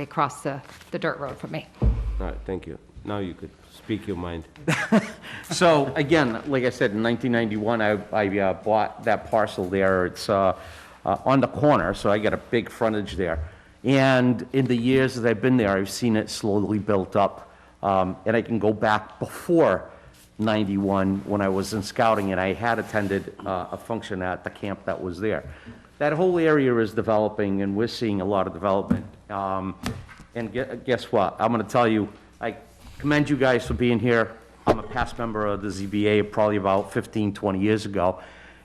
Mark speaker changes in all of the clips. Speaker 1: across the, the dirt road from me.
Speaker 2: All right, thank you. Now you could speak your mind.
Speaker 3: So again, like I said, in 1991, I, I uh, bought that parcel there. It's uh, uh, on the corner, so I got a big frontage there. And in the years that I've been there, I've seen it slowly built up. Um, And I can go back before 91, when I was in scouting, and I had attended uh, a function at the camp that was there. That whole area is developing, and we're seeing a lot of development. Um, And gue- guess what? I'm going to tell you, I commend you guys for being here. I'm a past member of the ZBA, probably about 15, 20 years ago,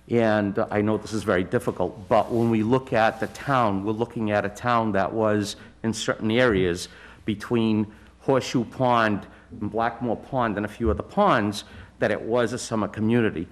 Speaker 3: and I know this is very difficult, but when we look at the town, we're looking at a town that was, in certain areas, between Horseshoe Pond and Blackmore Pond and a few other ponds, that it was a summer community.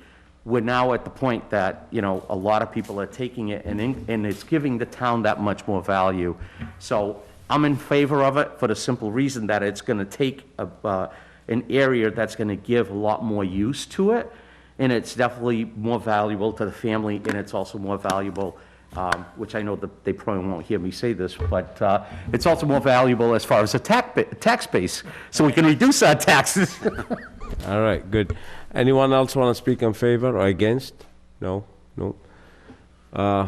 Speaker 3: We're now at the point that, you know, a lot of people are taking it, and, in- and it's giving the town that much more value. So I'm in favor of it for the simple reason that it's gonna take a, uh, an area that's gonna give a lot more use to it, and it's definitely more valuable to the family, and it's also more valuable, um, which I know that they probably won't hear me say this, but, uh, it's also more valuable as far as the tax, ba- tax base, so we can reduce our taxes.
Speaker 2: All right, good. Anyone else want to speak in favor or against? No, no. Uh,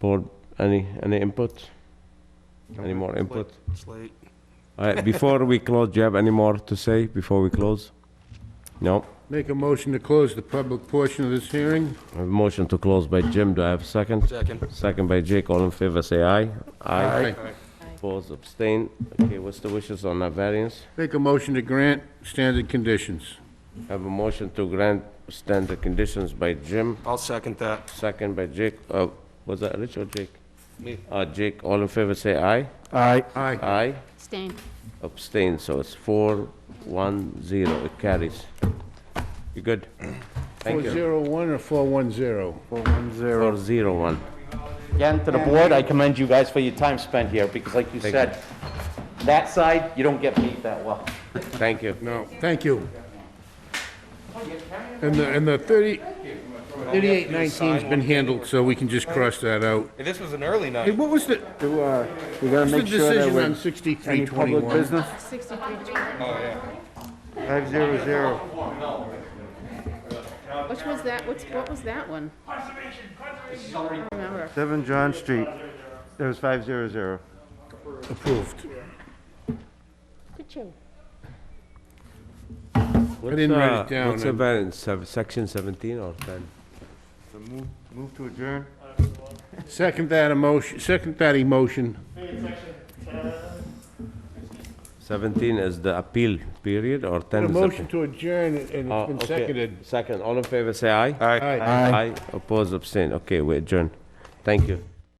Speaker 2: board, any, any input? Any more input?
Speaker 4: It's late.
Speaker 2: All right, before we close, do you have any more to say before we close? No?
Speaker 5: Make a motion to close the public portion of this hearing.
Speaker 2: I have a motion to close by Jim. Do I have a second?
Speaker 4: Second.
Speaker 2: Second by Jake. All in favor, say aye. Aye. Opposed, abstain. Okay, what's the wishes on that variance?
Speaker 5: Make a motion to grant standard conditions.
Speaker 2: I Have a motion to grant standard conditions by Jim,
Speaker 4: I'll second that.
Speaker 2: second by Jake. Uh, was that Rich or Jake?
Speaker 4: Me.
Speaker 2: Uh, Jake, all in favor, say aye.
Speaker 3: Aye.
Speaker 5: Aye.
Speaker 2: Aye.
Speaker 6: Abstain.
Speaker 2: Abstain, so it's four, one, zero. It carries. You good? Thank you.
Speaker 5: 401 or 410?
Speaker 2: Four, zero, one.
Speaker 3: Again, to the board, I commend you guys for your time spent here, because like you
Speaker 2: Thank
Speaker 3: said, that side, you don't get paid that well.
Speaker 2: Thank you.
Speaker 5: No, thank you. And the, and the 30, 3819's been handled, so we can just cross that out.
Speaker 4: This was an early
Speaker 5: Hey,
Speaker 4: night.
Speaker 5: what was the,
Speaker 7: Do, uh, we gotta
Speaker 5: what's the
Speaker 7: make sure that
Speaker 5: decision on
Speaker 7: we, any public
Speaker 5: 6321?
Speaker 7: business?
Speaker 6: 63.
Speaker 7: Five zero zero.
Speaker 6: Which was that, what's, what was that one? I don't Remember.
Speaker 7: Seven John Street. That was five zero zero.
Speaker 5: Approved.
Speaker 6: Good job.
Speaker 2: What's,
Speaker 5: didn't write it
Speaker 2: uh,
Speaker 5: down,
Speaker 2: What's the
Speaker 5: and-
Speaker 2: variance, Sev- section 17 or 10?
Speaker 7: So move, move to adjourn?
Speaker 5: Second that emotion, second that emotion.
Speaker 2: 17 is the appeal period or 10
Speaker 5: A
Speaker 2: is the...
Speaker 5: motion to adjourn, and
Speaker 2: Oh,
Speaker 5: it's been
Speaker 2: okay.
Speaker 5: seconded.
Speaker 2: Second, all in favor, say aye.
Speaker 5: Aye.
Speaker 2: Aye, oppose, abstain. Okay, we adjourn. Thank you.